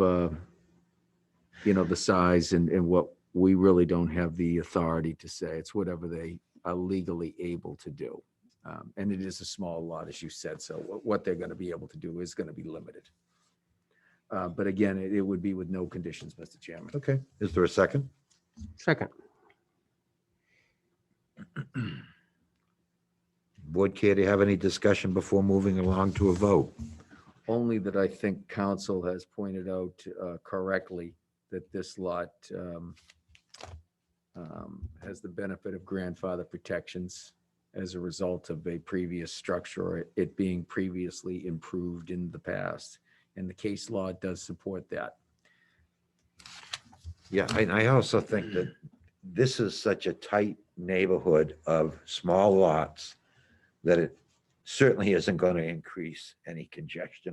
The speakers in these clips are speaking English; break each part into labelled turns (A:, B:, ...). A: uh, you know, the size and, and what we really don't have the authority to say. It's whatever they are legally able to do. Um, And it is a small lot, as you said, so what, what they're going to be able to do is going to be limited. Uh, But again, it, it would be with no conditions, Mr. Chairman.
B: Okay, is there a second?
C: Second.
B: Board care to have any discussion before moving along to a vote?
A: Only that I think council has pointed out uh, correctly that this lot um, um, has the benefit of grandfather protections as a result of a previous structure, or it being previously improved in the past. And the case law does support that.
B: Yeah, and I also think that this is such a tight neighborhood of small lots that it certainly isn't going to increase any congestion.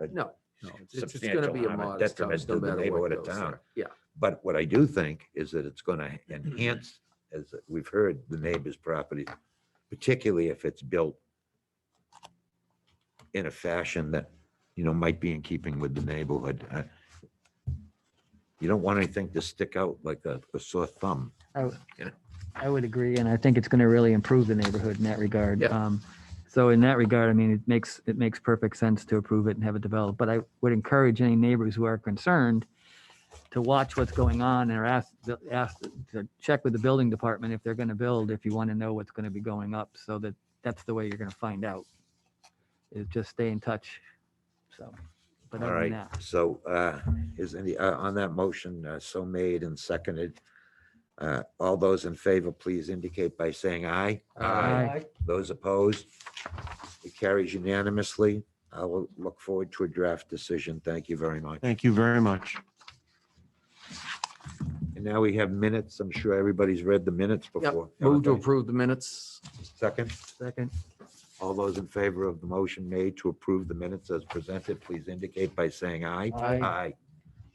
B: uh,
A: No, no, it's- it's going to
B: Substantial
A: be a
B: harm and
A: modest
B: detriment
A: house,
B: to
A: no
B: the
A: matter
B: neighborhood
A: what
B: of
A: goes
B: town.
A: there. Yeah,
B: But what I do think is that it's going to
C: Mm-hmm.
B: enhance, as we've heard, the neighbor's property, particularly if it's built in a fashion that, you know, might be in keeping with the neighborhood. I- You don't want anything to stick out like a a sore thumb.
C: I would agree, and I think it's going to really improve the neighborhood in that regard.
A: Yeah.
C: Um, So in that regard, I mean, it makes, it makes perfect sense to approve it and have it developed. But I would encourage any neighbors who are concerned to watch what's going on and are asked, asked to check with the building department if they're going to build, if you want to know what's going to be going up, so that that's the way you're going to find out. Is just stay in touch, so. but
B: All
C: other than
B: right,
C: that,
B: so uh, is any, uh, on that motion, uh, so made and seconded, uh, all those in favor, please indicate by saying aye.
A: Aye.
B: Those opposed? It carries unanimously. I will look forward to a draft decision. Thank you very much.
D: Thank you very much.
B: And now we have minutes. I'm sure everybody's read the minutes
A: Yep.
B: before.
A: move to
B: Everybody?
A: approve the minutes.
B: Second,
C: Second,
B: all those in favor of the motion made to approve the minutes as presented, please indicate by saying aye.
D: Aye.
B: Aye.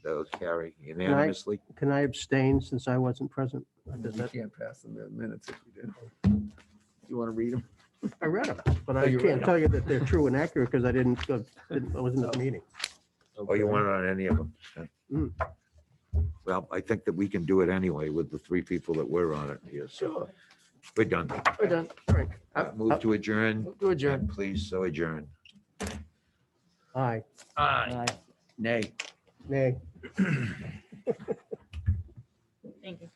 B: Those carry unanimously.
D: Can I abstain since I wasn't present? Does that-
A: can't pass them the minutes if you do. You want to read them?
D: I read them, but
A: Oh,
D: I
A: you read
D: can't
A: 'em.
D: tell you that they're true and accurate because I didn't, go- didn't- I wasn't at the meeting.
B: Oh, you want it on any of them?
D: Mm.
B: huh? Well, I think that we can do it anyway with the three people that were on it here, so we're done.
D: We're done, all right.
B: Uh, Move to adjourn.
A: Do adjourn.
B: And Please, so adjourn.
D: Aye,
C: aye.
A: Nay.
D: nay.
E: Thank you.